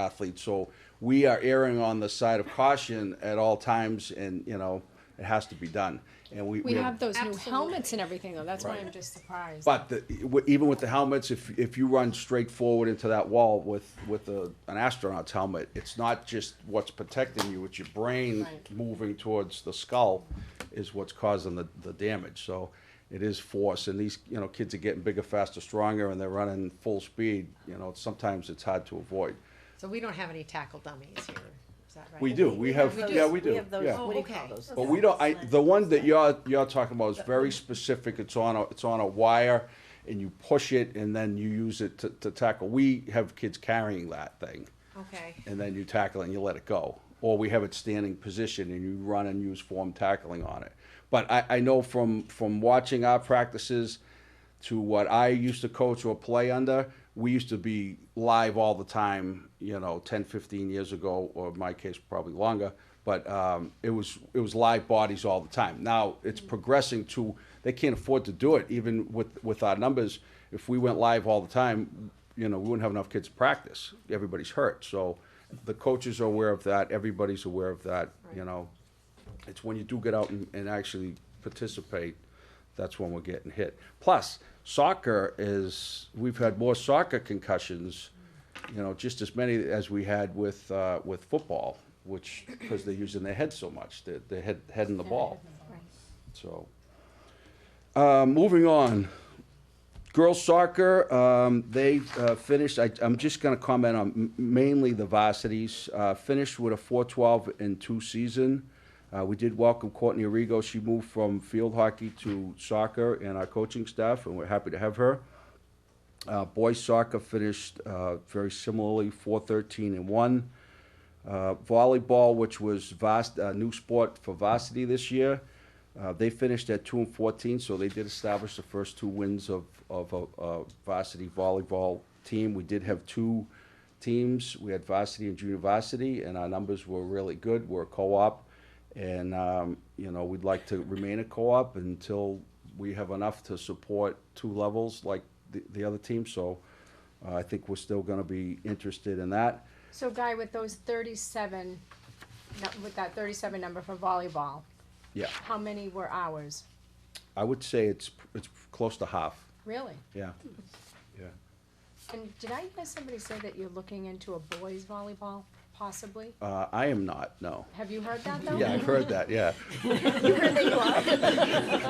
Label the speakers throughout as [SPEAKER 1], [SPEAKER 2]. [SPEAKER 1] athletes. So we are erring on the side of caution at all times, and you know it has to be done. And we,
[SPEAKER 2] We have those new
[SPEAKER 3] Absolutely.
[SPEAKER 2] helmets and everything though, that's why
[SPEAKER 1] Right.
[SPEAKER 2] I'm just surprised.
[SPEAKER 1] But the, w- even with the helmets, if if you run straight forward into that wall with with a, an astronaut's helmet, it's not just what's protecting you; it's your brain
[SPEAKER 2] Right.
[SPEAKER 1] moving towards the skull, is what's causing the, the damage. So it is force, and these you know kids are getting bigger, faster, stronger, and they're running full speed. You know, sometimes it's hard to avoid.
[SPEAKER 3] So we don't have any tackle dummies here, is that right?
[SPEAKER 1] We do. We have.
[SPEAKER 3] do.
[SPEAKER 1] Yeah, we do.
[SPEAKER 4] have those,
[SPEAKER 1] yeah.
[SPEAKER 4] what do you
[SPEAKER 3] Oh,
[SPEAKER 4] call
[SPEAKER 3] okay.
[SPEAKER 4] those?
[SPEAKER 1] But we don't, I, the one that you're, you're talking about is very specific, it's on a, it's on a wire, and you push it, and then you use it to, to tackle. We have kids carrying that thing,
[SPEAKER 3] Okay,
[SPEAKER 1] and then you tackle and you let it go. Or we have it standing position and you run and use form tackling on it. But I, I know from, from watching our practices to what I used to coach or play under, we used to be live all the time, you know, 10, 15 years ago, or in my case, probably longer. But um, it was it was live bodies all the time. Now it's progressing to they can't afford to do it even with with our numbers. If we went live all the time, you know, we wouldn't have enough kids to practice. Everybody's hurt, so the coaches are aware of that. Everybody's aware of that. You
[SPEAKER 3] Right.
[SPEAKER 1] know, it's when you do get out and, and actually participate, that's when we're getting hit. Plus, soccer is, we've had more soccer concussions, you know, just as many as we had with, uh, with football, which, because they're using their head so much, their, their head, head in the ball. So, uh, moving on. Girls soccer, um, they uh, finished, I, I'm just going to comment on m- mainly the varsities, uh, finished with a 412 and 2 season. Uh, we did welcome Courtney Arrigo. She moved from field hockey to soccer and our coaching staff, and we're happy to have her. Uh, boys soccer finished uh, very similarly, 413 and 1. Uh, volleyball, which was vast, uh, new sport for varsity this year, uh, they finished at two and fourteen, so they did establish the first two wins of, of a, a varsity volleyball team. We did have two teams. We had varsity and junior varsity, and our numbers were really good. We're a co-op, and um, you know we'd like to remain a co-op until we have enough to support two levels like the, the other team. So uh, I think we're still going to be interested in that.
[SPEAKER 2] So Guy, with those thirty-seven, nu- with that thirty-seven number for volleyball,
[SPEAKER 1] Yeah.
[SPEAKER 2] how many were ours?
[SPEAKER 1] I would say it's it's close to half.
[SPEAKER 2] Really?
[SPEAKER 1] Yeah. Yeah.
[SPEAKER 2] And did I hear somebody say that you're looking into a boys volleyball, possibly?
[SPEAKER 1] Uh, I am not. No.
[SPEAKER 2] Have you heard that though?
[SPEAKER 1] Yeah, I've heard that. Yeah.
[SPEAKER 2] You heard that you are?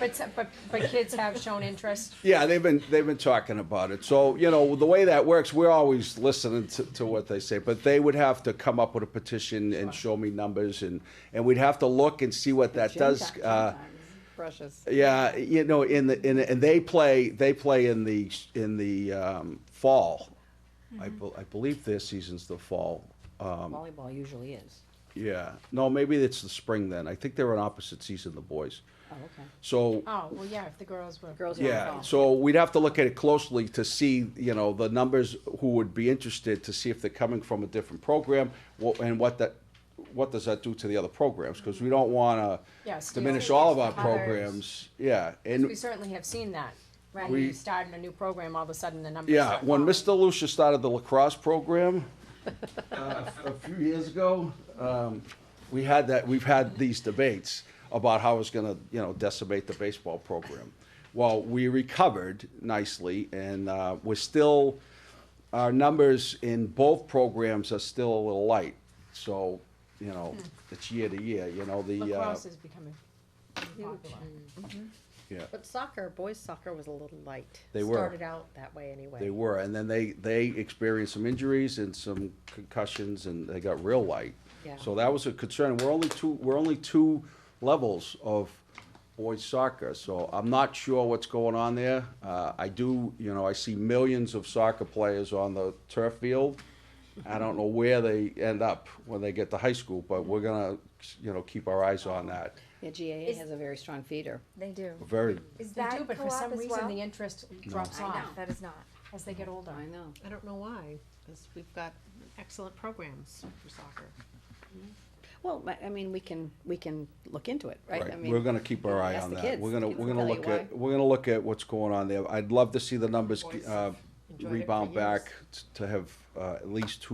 [SPEAKER 2] But, s- but, but kids have shown interest,
[SPEAKER 1] Yeah, they've been they've been talking about it. So you know the way that works, we're always listening to, to what they say. But they would have to come up with a petition and show me numbers, and and we'd have to look and see what that does. Uh,
[SPEAKER 3] precious.
[SPEAKER 1] yeah, you know, in the in and they play they play in the in the um, fall. I, bel I believe their season's the fall. Um,
[SPEAKER 4] Mm-hmm. Volleyball usually is.
[SPEAKER 1] yeah, no, maybe it's the spring then. I think they're an opposite season, the boys.
[SPEAKER 4] Oh, okay.
[SPEAKER 1] So
[SPEAKER 2] oh, well, yeah, if the girls were.
[SPEAKER 4] Girls are
[SPEAKER 1] Yeah,
[SPEAKER 4] involved.
[SPEAKER 1] so we'd have to look at it closely to see, you know, the numbers who would be interested to see if they're coming from a different program wha- and what that, what does that do to the other programs? Because we don't wanna
[SPEAKER 2] Yeah, skew
[SPEAKER 1] diminish all of our
[SPEAKER 2] others.
[SPEAKER 1] programs. Yeah,
[SPEAKER 2] We
[SPEAKER 1] and,
[SPEAKER 2] certainly have seen that, right?
[SPEAKER 1] We-
[SPEAKER 2] You start in a new program, all of a sudden the numbers.
[SPEAKER 1] yeah,
[SPEAKER 2] start
[SPEAKER 1] when
[SPEAKER 2] falling.
[SPEAKER 1] Mr. Lucia started the lacrosse program, uh, a few years ago, um, we had that, we've had these debates about how it's gonna, you know, decimate the baseball program. Well, we recovered nicely and, uh, we're still, our numbers in both programs are still a little light. So, you know, it's year to year, you know, the, uh,
[SPEAKER 2] Hmm. Lacrosse is becoming
[SPEAKER 3] Huge.
[SPEAKER 2] popular.
[SPEAKER 1] yeah.
[SPEAKER 3] But soccer, boys soccer was a little light.
[SPEAKER 1] They were.
[SPEAKER 3] Started out that way anyway.
[SPEAKER 1] They were, and then they, they experienced some injuries and some concussions, and they got real light.
[SPEAKER 3] Yeah.
[SPEAKER 1] So that was a concern. We're only two, we're only two levels of boys soccer, so I'm not sure what's going on there. Uh, I do, you know, I see millions of soccer players on the turf field. I don't know where they end up when they get to high school, but we're gonna, you know, keep our eyes on that.
[SPEAKER 4] Yeah, GAA
[SPEAKER 5] Is-
[SPEAKER 4] has a very strong feeder.
[SPEAKER 5] They do.
[SPEAKER 1] Very,
[SPEAKER 5] Is
[SPEAKER 2] They
[SPEAKER 5] that
[SPEAKER 2] do, but for
[SPEAKER 5] co-op
[SPEAKER 2] some
[SPEAKER 5] as
[SPEAKER 2] reason,
[SPEAKER 5] well?
[SPEAKER 2] the interest drops
[SPEAKER 4] I
[SPEAKER 2] off
[SPEAKER 5] No, that is not.
[SPEAKER 2] as they get older.
[SPEAKER 4] I know.
[SPEAKER 3] I don't know why, because we've got excellent programs for soccer.
[SPEAKER 4] Well, I- I mean, we can, we can look into it, right? I
[SPEAKER 1] Right,
[SPEAKER 4] mean,
[SPEAKER 1] we're gonna keep our eye
[SPEAKER 4] ask
[SPEAKER 1] on
[SPEAKER 4] the
[SPEAKER 1] that.
[SPEAKER 4] kids.
[SPEAKER 1] We're gonna,
[SPEAKER 4] Kids
[SPEAKER 1] we're
[SPEAKER 4] will
[SPEAKER 1] gonna
[SPEAKER 4] tell you
[SPEAKER 1] look at,
[SPEAKER 4] why.
[SPEAKER 1] we're gonna look at what's going on there. I'd love to see the numbers,
[SPEAKER 3] Boys
[SPEAKER 1] uh,
[SPEAKER 3] enjoyed it for
[SPEAKER 1] rebound
[SPEAKER 3] years.
[SPEAKER 1] back t- to have, uh, at least two